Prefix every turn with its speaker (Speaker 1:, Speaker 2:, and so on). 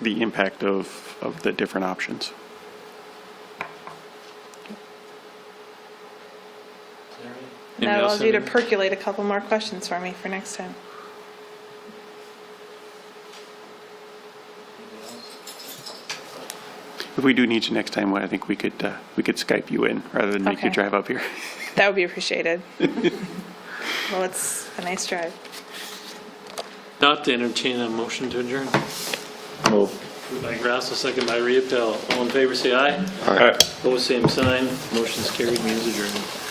Speaker 1: the impact of, of the different options.
Speaker 2: And
Speaker 3: That allows you to
Speaker 2: Nelson-
Speaker 3: percolate a couple more questions for me for next time.
Speaker 1: If we do need you next time, I think we could, uh, we could Skype you in rather than make you
Speaker 3: Okay.
Speaker 1: drive up here.
Speaker 3: That would be appreciated. Well, it's a nice drive.
Speaker 2: Not to entertain a motion to adjourn.
Speaker 4: Move.
Speaker 2: Moved by Grasso, second by Riepel. All in favor, say aye.
Speaker 4: All right.
Speaker 2: Opposed, same sign. Motion's carried, means adjourned.